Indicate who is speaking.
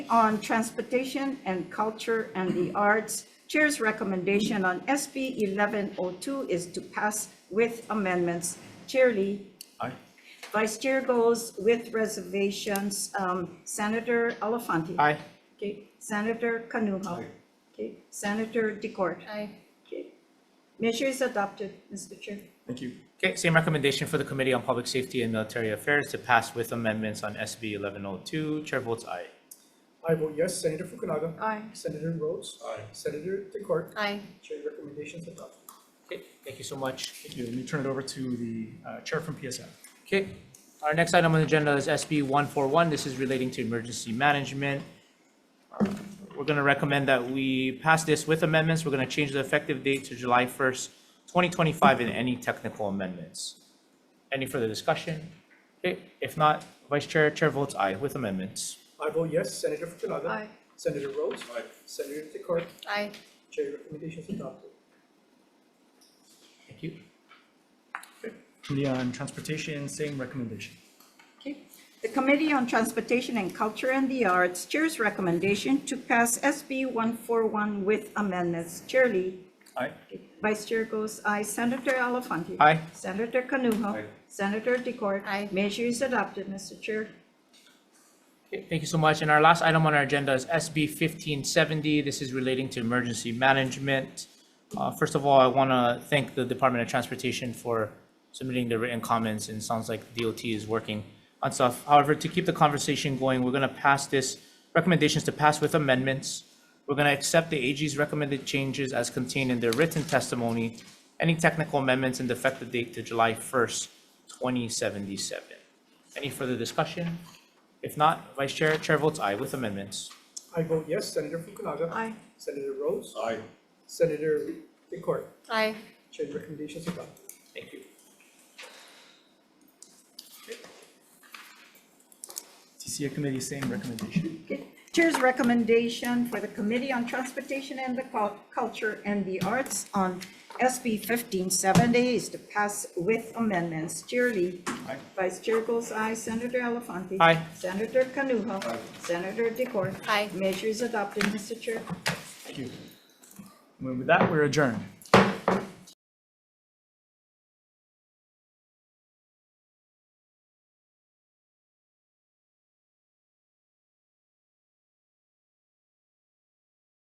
Speaker 1: on Transportation and Culture and the Arts. Chair's recommendation on SB 1102 is to pass with amendments. Chair Lee.
Speaker 2: Aye.
Speaker 1: Vice Chair goes with reservations. Um, Senator Elafante.
Speaker 2: Aye.
Speaker 1: Okay, Senator Kanuha. Okay, Senator Decord.
Speaker 3: Aye.
Speaker 1: Okay. Measure is adopted, Mr. Chair.
Speaker 2: Thank you.
Speaker 4: Okay, same recommendation for the Committee on Public Safety and Military Affairs to pass with amendments on SB 1102. Chair votes aye.
Speaker 5: I vote yes. Senator Fukunaga.
Speaker 1: Aye.
Speaker 5: Senator Rhodes.
Speaker 2: Aye.
Speaker 5: Senator Decort.
Speaker 3: Aye.
Speaker 5: Chair recommendations adopted.
Speaker 4: Okay, thank you so much.
Speaker 2: Thank you. Let me turn it over to the uh, Chair from PSF.
Speaker 4: Okay, our next item on the agenda is SB 141. This is relating to emergency management. We're going to recommend that we pass this with amendments. We're going to change the effective date to July 1st, 2025, and any technical amendments. Any further discussion? Okay, if not, Vice Chair, Chair votes aye with amendments.
Speaker 5: I vote yes. Senator Fukunaga.
Speaker 3: Aye.
Speaker 5: Senator Rhodes.
Speaker 2: Aye.
Speaker 5: Senator Decort.
Speaker 3: Aye.
Speaker 5: Chair recommendations adopted.
Speaker 4: Thank you.
Speaker 2: Committee on Transportation, same recommendation.
Speaker 1: Okay. The Committee on Transportation and Culture and the Arts Chair's recommendation to pass SB 141 with amendments. Chair Lee.
Speaker 2: Aye.
Speaker 1: Vice Chair goes aye. Senator Elafante.
Speaker 4: Aye.
Speaker 1: Senator Kanuha.
Speaker 2: Aye.
Speaker 1: Senator Decord.
Speaker 3: Aye.
Speaker 1: Measure is adopted, Mr. Chair.
Speaker 4: Okay, Thank you so much. And our last item on our agenda is SB 1570. This is relating to emergency management. Uh, First of all, I want to thank the Department of Transportation for submitting the written comments, and it sounds like DOT is working on stuff. However, to keep the conversation going, we're going to pass this, recommendations to pass with amendments. We're going to accept the AG's recommended changes as contained in their written testimony. Any technical amendments and the effective date to July 1st, 2077. Any further discussion? If not, Vice Chair, Chair votes aye with amendments.
Speaker 5: I vote yes. Senator Fukunaga.
Speaker 3: Aye.
Speaker 5: Senator Rhodes.
Speaker 2: Aye.
Speaker 5: Senator Decort.
Speaker 3: Aye.
Speaker 5: Chair recommendations adopted.
Speaker 4: Thank you.
Speaker 2: TCA Committee, same recommendation.
Speaker 1: Okay. Chair's recommendation for the Committee on Transportation and the Cul- Culture and the Arts on SB 1570 is to pass with amendments. Chair Lee.
Speaker 2: Aye.
Speaker 1: Vice Chair goes aye. Senator Elafante.
Speaker 4: Aye.
Speaker 1: Senator Kanuha.
Speaker 2: Aye.
Speaker 1: Senator Decort.
Speaker 3: Aye.
Speaker 1: Measures adopted, Mr. Chair.
Speaker 2: Thank you. And With that, we're adjourned.